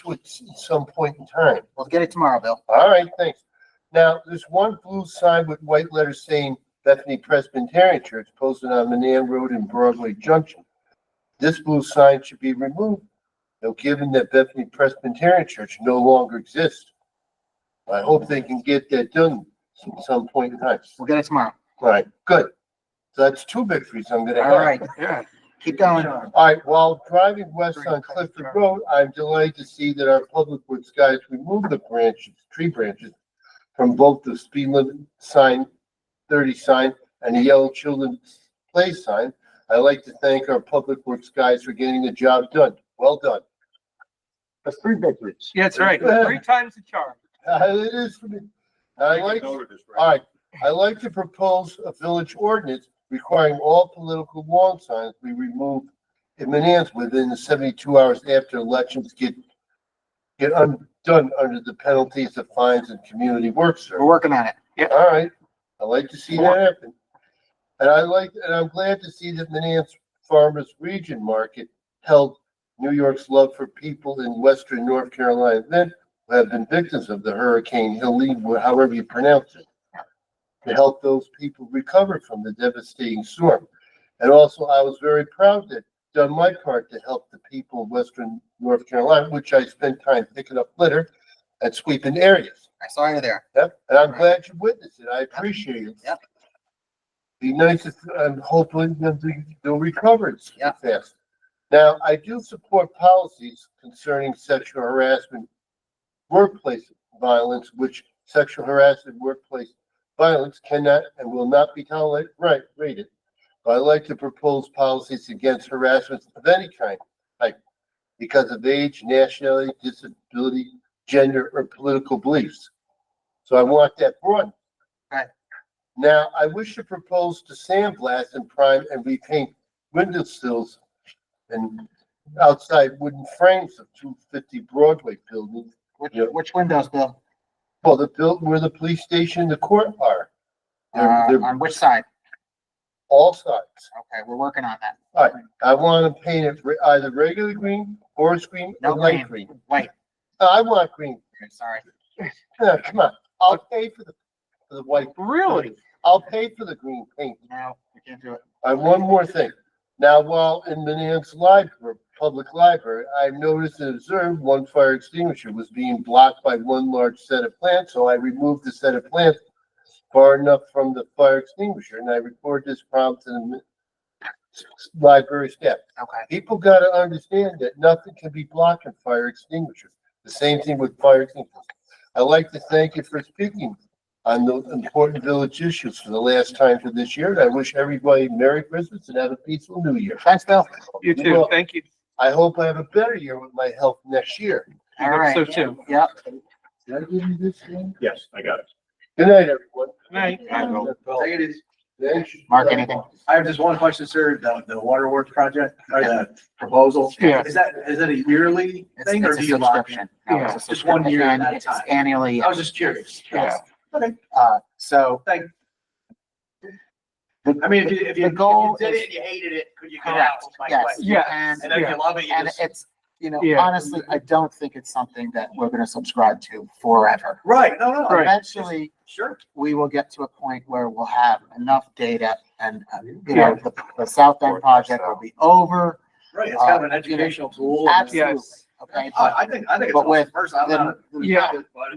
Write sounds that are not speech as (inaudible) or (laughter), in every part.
to at some point in time. We'll get it tomorrow, Bill. All right, thanks. Now, there's one blue sign with white letters saying Bethany Presbyterian Church posted on Manan Road and Broadway Junction. This blue sign should be removed, though given that Bethany Presbyterian Church no longer exists. I hope they can get that done at some point in time. We'll get it tomorrow. All right, good. So that's two victories I'm gonna All have. (laughs) right, keep going. All right, while driving west on Clifford Road, I'm delighted to see that our public works guys removed the branches, tree branches from both the speed limit sign, thirty sign, and the yellow children's play sign. I'd like to thank our public works guys for getting the job done. Well done. (laughs) That's three victories. Yeah, that's right. Three times the charm. It is for me. I like, all right, I like to propose a village ordinance requiring all political lawn signs be removed in Manans within the seventy-two hours after elections get get undone under the penalties of fines and community work We're service. working on it. All right, I like to see that happen. And I like, and I'm glad to see that Manans Farmers Region Market held New York's Love for People in Western North Carolina event who have been victims of the Hurricane Helene, wh- however you pronounce it, to help those people recover from the devastating storm. And also, I was very proud to have done my part to help the people of Western North Carolina, which I spent time picking up litter and sweeping areas. I saw you there. Yep, and I'm glad you witnessed it. I appreciate it. Yep. Be nice if, and hopefully they'll, be- they'll recover it Yep. fast. Now, I do support policies concerning sexual harassment, workplace violence, which sexual harassment, workplace violence cannot and will not be tolerated, right, rated. But I like to propose policies against harassment of any kind, like because of age, nationality, disability, gender, or political beliefs. So I want that broadened. Right. Now, I wish to propose to sandblast and prime and repaint window sills and outside wooden frames of two fifty Broadway building. Which, Yep. which windows, Bill? Well, the build where the police station, and the court are. They're, Uh, they're on which side? all sides. Okay, we're working on that. I want to paint it re- either regular green, forest green, No or light green. green. Wait, I want green. (laughs) sorry. Yeah, Come on, I'll pay for the, for the white. Really? I'll pay for the green paint. No, we can't do it. I have one more thing. Now, while in Manans Library, Public Library, I noticed and observed one fire extinguisher was being blocked by one large set of plants, so I removed the set of plants far enough from the fire extinguisher, and I reported this problem to the mi- library staff. Okay. People gotta understand that nothing can be blocking fire extinguishers. The same thing with fire extinguishers. I'd like to thank you for speaking on the important village issues for the last time for this year, and I wish everybody Merry Christmas and have a peaceful New Year. Thanks, Bill. You too. Well, Thank you. I hope I have a better year with my health next year. All hope right. so, too. Yep. Did I give you this thing? Yes, I got it. Good night, everyone. Night. Take it easy. Thanks. Mark, anything? I have just one question, sir, the, the waterworks project, or the proposal. Yeah. Is that, is it a yearly It's, thing or it's do a you lock subscription. in? No, it's a Yeah. Just one year subscription. at a It's time. Annually, Oh, I was just curious. yes. Okay, Uh, so. thank. I mean, if you, if you, The if goal you did is- it and you hated it, could you get out? Correct, Is my yes. question. Yes. And And if Yeah. you love it, you And just. it's, you know, Yeah. honestly, I don't think it's something that we're gonna subscribe to forever. Right, no, no, Right. Eventually, sure. we will get to a point where we'll have enough data and, uh, you Yeah. know, the, the South End project will be over. Right, it's kind Uh, of an you know, educational tool. Absolutely, Yes. okay? I, But I think, I think it's But awesome. with First, I'm the- not. the Yeah.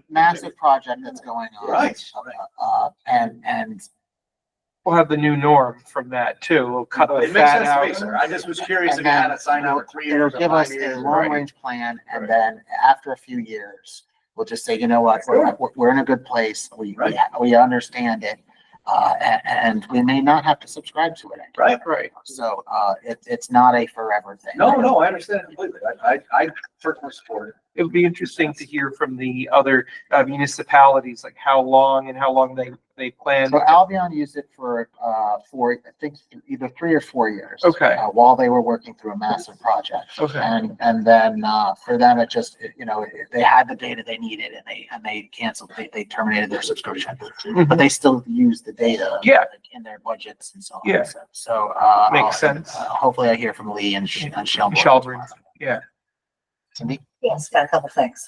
Massive project that's going on. Right. Uh, and, and, We'll have the new norm from that too. We'll cut the It makes fat sense to me, out. sir. I just was curious if And you had then a sign out for three it'll years or give us five a years. long range plan and then after a few years, we'll just say, you know what, we're, we're- we're in a good place. We, we, Right. we understand it. Uh, and, and we may not have to subscribe to it. Right. Right. So, uh, it, it's not a forever thing. No, no, I understand completely. I, I, I personally support it. It would be interesting to hear from the other uh, municipalities, like how long and how long they, they plan. So Albion used it for, uh, for, I think, either three or four years. Okay. uh, While they were working through a massive project. Okay. And, and then, uh, for them, it just, it- you know, it- they had the data they needed and they, and they canceled, they, they terminated their subscription. But they still use the data. Mm-hmm. Yeah. In their budgets and so on. Yeah. So- So, uh. Makes I'll- sense. uh, Hopefully I hear from Lee and Sh- and Shelburne. Shelburne, yeah. Cindy? Yes, got a couple things.